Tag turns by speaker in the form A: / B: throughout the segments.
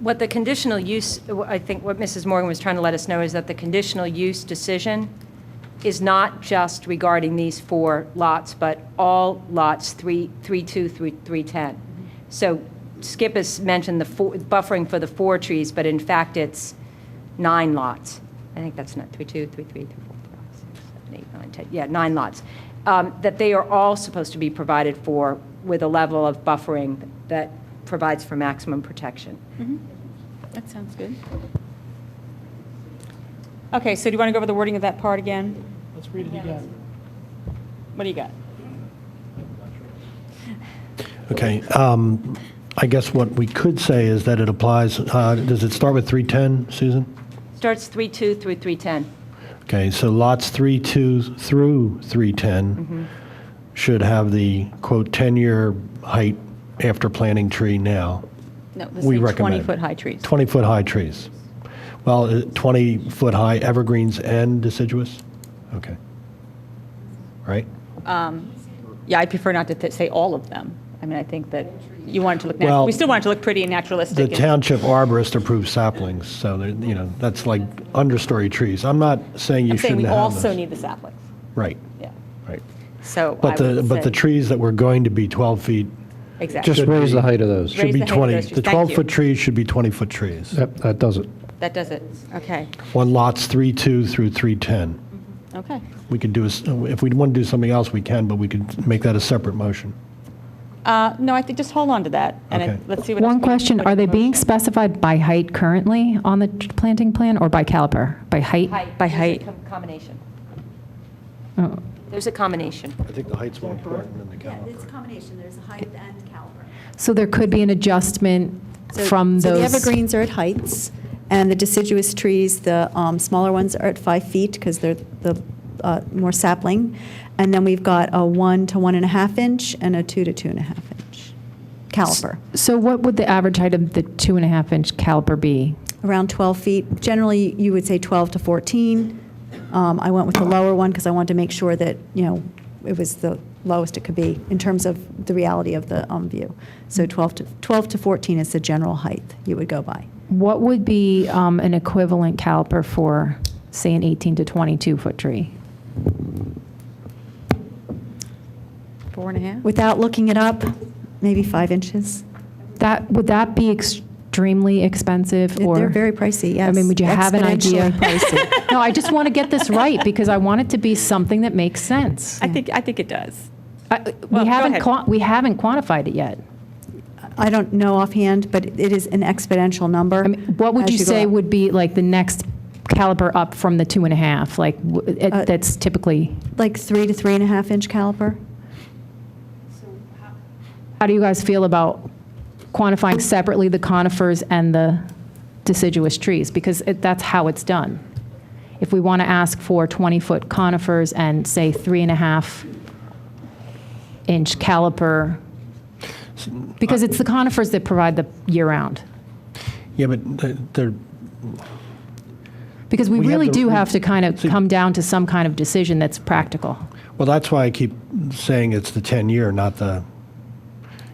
A: What the conditional use, I think what Mrs. Morgan was trying to let us know is that the conditional use decision is not just regarding these four lots, but all lots 3, 32 through 310. So Skip has mentioned the four- buffering for the four trees, but in fact, it's nine lots. I think that's not 32, 33, 34, 35, 36, 7, 8, 9, 10, yeah, nine lots. Um, That they are all supposed to be provided for with a level of buffering that provides for maximum protection.
B: That sounds good. Okay, so do you want to go over the wording of that part again?
C: Let's read it again.
B: What do you got?
D: Okay, um, I guess what we could say is that it applies, uh, does it start with 310, Susan?
A: Starts 32 through 310.
D: Okay, so lots 3, 2 through 310 should have the, quote, 10-year height after planting tree now,
B: No, this
D: We
B: is
D: recommend it.
B: 20-foot high trees.
D: 20-foot-high trees. Well, 20-foot-high evergreens and deciduous? Okay. Right?
B: Yeah, I'd prefer not to th- say all of them. I mean, I think that you want it to look, nat-
D: Well,
B: we still want it to look pretty and
D: The
B: naturalistic. and-
D: township arborist approves saplings, so, they're- you know, that's like understory trees. I'm not saying you
B: I'm saying
D: shouldn't
B: we
D: have
B: also
D: those.
B: need the saplings,
D: Right,
B: yeah.
D: right.
B: So I
D: But the,
B: would
D: but the
B: say-
D: trees that were going to be 12 feet
B: Exactly,
E: Just raise the height of those.
B: Raise
D: should be
B: the height of
D: 20.
B: those trees.
D: The
B: Thank you.
D: 12-foot trees should be 20-foot trees
E: That, that does it.
B: that does it, okay,
D: on lots 3-2 through 310.
B: okay.
D: We could do, a s- if we want to do something else, we can, but we could make that a separate motion.
B: Uh, No, I think just hold on to that, and I-
D: Okay.
B: let's see what. else
F: One
B: we can
F: question,
B: put
F: are
B: in
F: they
B: motion.
F: being specified by height currently on the t- planting plan or by caliper? By height?
B: By
A: There's a
B: height.
A: com- Combination.
F: Oh.
A: There's a combination.
D: I think the height's more important than the
G: Yeah, it's a combination, there's a height and caliper.
F: So there could be an adjustment
G: So-
F: from
G: So the
F: those.
G: evergreens are at heights, and the deciduous trees, the um, smaller ones are at five feet, because they're the uh, more sapling. And then we've got a one to one and a half inch, and a two to two and a half inch caliper,
F: So what would the average height of the two and a half inch caliper be?
G: around 12 feet. Generally, you would say 12 to 14. Um, I went with the lower one, because I wanted to make sure that, you know, it was the lowest it could be, in terms of the reality of the um, view. So 12 to, 12 to 14 is the general height you would go by.
F: What would be um, an equivalent caliper for, say, an 18 to 22 foot tree?
B: Four and a half?
G: Without looking it up, maybe five inches.
F: That, would that be extremely expensive or?
G: They're very pricey, yes.
F: I mean, would you have an idea?
G: Exponentially pricey.
F: No, I just want to get this right because I want it to be something that makes sense.
B: I think, I think it does.
F: I-
B: Well,
F: We
B: go
F: haven't,
B: ahead.
F: quan- we haven't quantified it yet.
G: I don't know offhand, but it is an exponential number.
F: I mean, what would
G: as
F: you
G: go
F: say
G: up.
F: would be like the next caliber up from the two and a half? Like, w- it-
G: Uh,
F: that's typically,
G: Like three to three and a half inch caliper?
F: how do you guys feel about quantifying separately the conifers and the deciduous trees? Because it- that's how it's done. If we want to ask for 20-foot conifers and, say, three and a half inch caliper,
D: uh,
B: Uh,
F: because it's the conifers that provide the year-round.
D: Yeah, but the- they're,
F: Because we
D: We have
F: really
D: the-
F: do
D: we-
F: have to kind of
D: See-
F: come down to some kind of decision that's practical.
D: well, that's why I keep saying it's the 10-year, not the,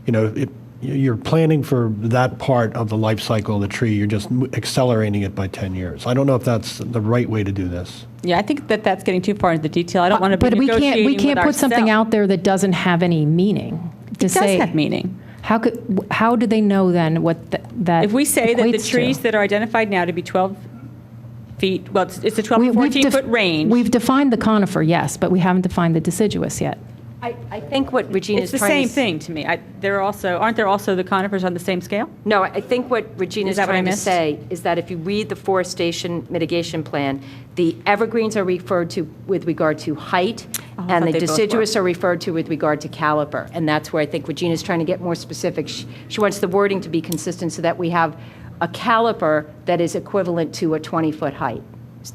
D: you know, it- you're planning for that part of the life cycle of the tree, you're just m- accelerating it by 10 years. I don't know if that's the right way to do this.
B: Yeah, I think that that's getting too far into the detail. I don't want to be
F: Uh, But we can't,
B: negotiating
F: we can't
B: with
F: put something
B: ourselves.
F: out there that doesn't have any meaning. to
B: It does
F: say-
B: have meaning.
F: How could, wh- how do they know then what th- that
B: If we say that the
F: equates to?
B: trees that are identified now to be 12 feet, well, it's- it's a 12
F: We-
B: to
F: we've
B: 14
F: def-
B: foot range.
F: We've defined the conifer, yes, but we haven't defined the deciduous yet.
A: I, I think what Regina's
B: It's the
A: trying to.
B: same
A: s-
B: thing to me. I- There are also, aren't there also the conifers on the same scale?
A: No, I think what Regina's
B: Is that what I
A: trying to
B: missed?
A: say is that if you read the forestation mitigation plan, the evergreens are referred to with regard to height,
B: Oh, I
A: and the
B: thought they both were.
A: deciduous are referred to with regard to caliper. And that's where I think Regina's trying to get more specific. She she wants the wording to be consistent so that we have a caliper that is equivalent to a 20-foot height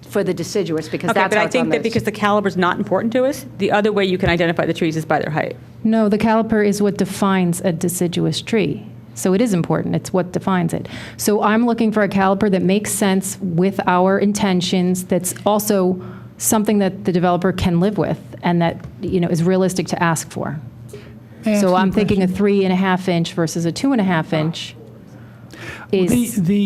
A: for the deciduous, because
B: Okay,
A: that's
B: but
A: how
B: I
A: it's on
B: think that
A: those.
B: because the caliber's not important to us, the other way you can identify the trees is by their height.
F: No, the caliper is what defines a deciduous tree. So it is important. It's what defines it. So I'm looking for a caliper that makes sense with our intentions, that's also something that the developer can live with and that, you know, is realistic to ask for.
C: May I ask
F: So
C: you a
F: I'm thinking a
C: question?
F: three and a half inch versus a two and a half inch is.
C: The, the